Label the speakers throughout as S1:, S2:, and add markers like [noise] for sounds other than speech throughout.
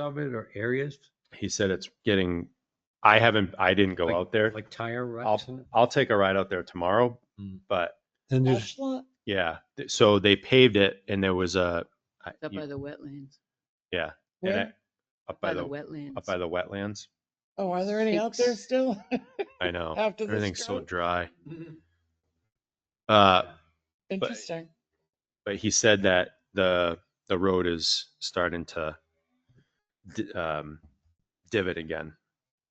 S1: of it or areas
S2: He said it's getting, I haven't, I didn't go out there.
S1: like tire ruts? and-
S2: I'll take a ride out there tomorrow,
S1: Mm.
S2: but
S1: Then
S3: That's
S1: there's,
S3: lot
S2: yeah. th- So they paved it and there was a, I-
S4: Up
S2: you-
S4: by the wetlands,
S2: yeah. and
S3: where?
S2: I- Up
S4: by
S2: by
S4: the
S2: the, up
S4: wetlands.
S2: by the wetlands.
S3: Oh, are there any out there
S4: Six.
S3: still? [laughs]
S2: I know.
S3: After the
S2: Oh, Everything's so
S3: storm?
S2: dry.
S1: Oh. [laughs]
S2: Uh,
S3: Interesting.
S2: but he said that the the road is starting to di- um, divot again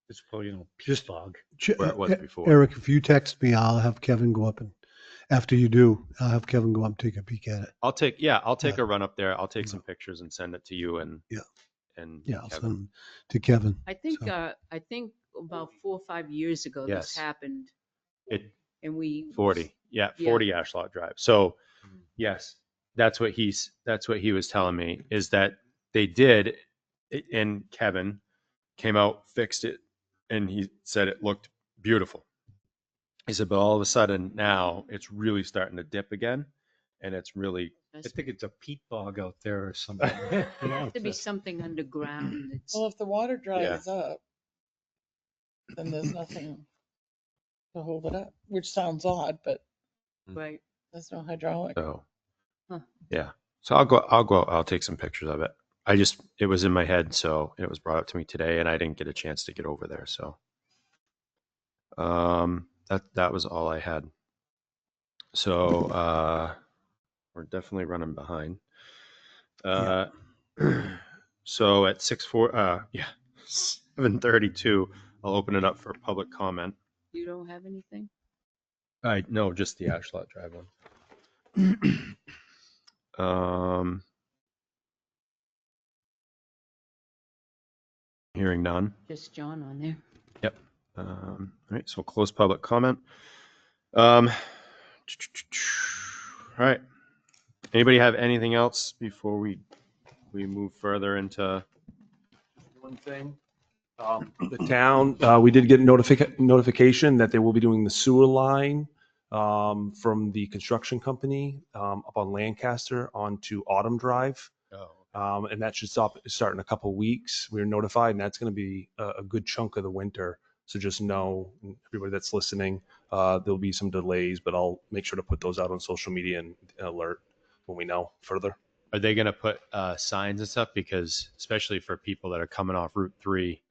S1: it's probably, you know, peat bog.
S5: Ch-
S2: where it was
S5: E-
S2: before.
S5: Eric, if you text me, I'll have Kevin go up and, after you do, I'll have Kevin go up and take a peek at it.
S2: I'll take yeah, I'll take
S5: Yeah.
S2: a run up there. I'll take
S5: Yeah.
S2: some pictures and send it to you and
S5: Yeah.
S2: and
S5: Yeah, I'll
S2: Kevin.
S5: send them to Kevin.
S4: I think,
S5: So-
S4: uh, I think about four or five years ago this
S2: Yes.
S4: happened
S2: it
S4: and we.
S2: forty yeah
S4: Yeah.
S2: forty Ashlot Drive. So yes, that's what he's that's what he was telling me is that they did it- and Kevin came out fixed it and he said it looked beautiful. He said, but all of a sudden now it's really starting to dip again, and it's really
S1: I
S4: There's-
S1: think it's a peat bog out [laughs] there or something. [laughs]
S4: Has to be something underground that's.
S3: Well, if the water
S2: Yeah.
S3: dries up, then there's nothing to hold it up, which sounds odd, but
S4: Right.
S3: there's no hydraulic.
S2: So,
S4: Huh.
S2: yeah. So I'll go. I'll go. I'll take some pictures of it. I just it was in my head, so it was brought up to me today, and I didn't get a chance to get over there. So, um, that that was all I had. So, uh, we're definitely running behind. Uh, [clears throat] so at six four, uh, yeah, [laughs] seven thirty two. I'll open it up for public comment.
S4: You don't have anything?
S2: I no, just the Ashlot Drive one. um, hearing none.
S4: Just John on there.
S2: Um, all right, so close public comment. Um, [sighs] all right. Anybody have anything else before we we move further into?
S6: One thing, um, the town, uh, we did get notific- notification that they will be doing the sewer line um, from the construction company um, up on Lancaster onto Autumn Drive.
S2: Oh,
S6: Um, and that should stop, start in a couple weeks. We were notified and that's going to be a, a good chunk of the winter. So just know, everybody that's listening, uh, there'll be some delays, but I'll make sure to put those out on social media and alert when we know further.
S2: Are they going to put uh, signs and stuff? Because especially for people that are coming off Route Three,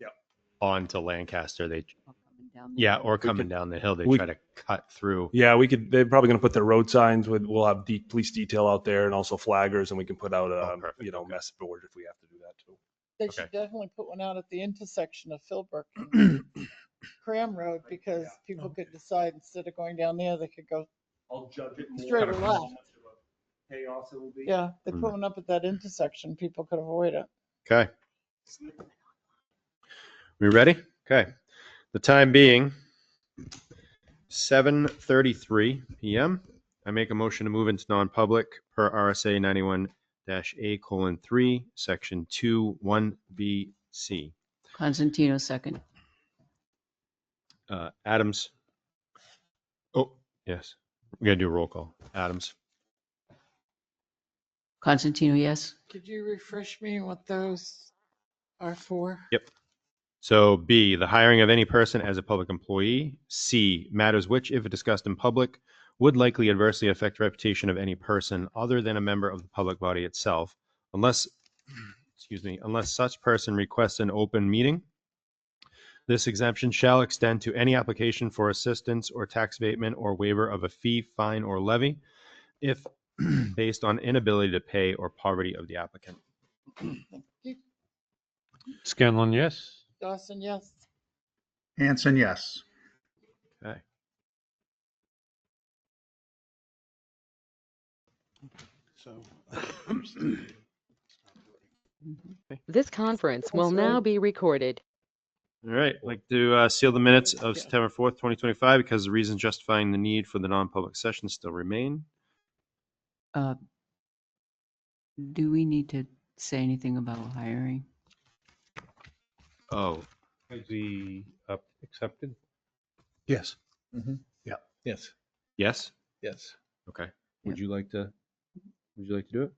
S6: Yep.
S2: onto Lancaster, they
S4: I'll come down there.
S2: Yeah, or coming
S6: could-
S2: down the hill, they
S6: we-
S2: try to cut through.
S6: Yeah, we could. They're probably going to put their road signs with. We'll have de- police detail out there and also flaggers, and we can put out a
S2: Oh,
S6: um,
S2: perfect,
S6: you know
S2: okay.
S6: message board if we have to do that too.
S3: They
S2: okay.
S3: should definitely put one out at the intersection of Philbrook
S2: [clears throat]
S3: and Cram Road because people could decide instead of going down there, they could go,
S6: I'll judge it more.
S3: Straight or
S6: on
S3: left?
S6: how much of a Chaos it will be.
S3: yeah, they
S2: Mm.
S3: put one up at that intersection, people could avoid it.
S2: Okay. We ready? Okay. The time being seven thirty-three PM. I make a motion to move into non-public per RSA ninety-one dash A colon three, section two, one B C.
S4: Constantino second.
S2: Uh, Adams. Oh, yes. We're gonna do a roll call. Adams.
S4: Constantino, yes?
S3: Could you refresh me what those are for?
S2: So B, the hiring of any person as a public employee. C, matters which, if discussed in public, would likely adversely affect reputation of any person other than a member of the public body itself, unless, excuse me, unless such person requests an open meeting. This exemption shall extend to any application for assistance or tax abatement or waiver of a fee, fine, or levy if [clears throat] based on inability to pay or poverty of the applicant.
S1: Scanlon, yes?
S3: Dawson, yes.
S7: Hanson, yes.
S2: Okay.
S5: So.
S8: This conference will
S3: That's
S8: now
S3: right.
S8: be recorded.
S2: All right, I'd like to uh, seal the minutes of September 4th, 2025, because the reasons justifying the need for the non-public session still remain.
S4: Uh, Do we need to say anything about hiring?
S2: Oh,
S1: Is he up- accepted?
S5: Yes.
S1: Yes.
S2: yes?
S1: Yes.
S2: Okay. Would you like to, would you like to do it?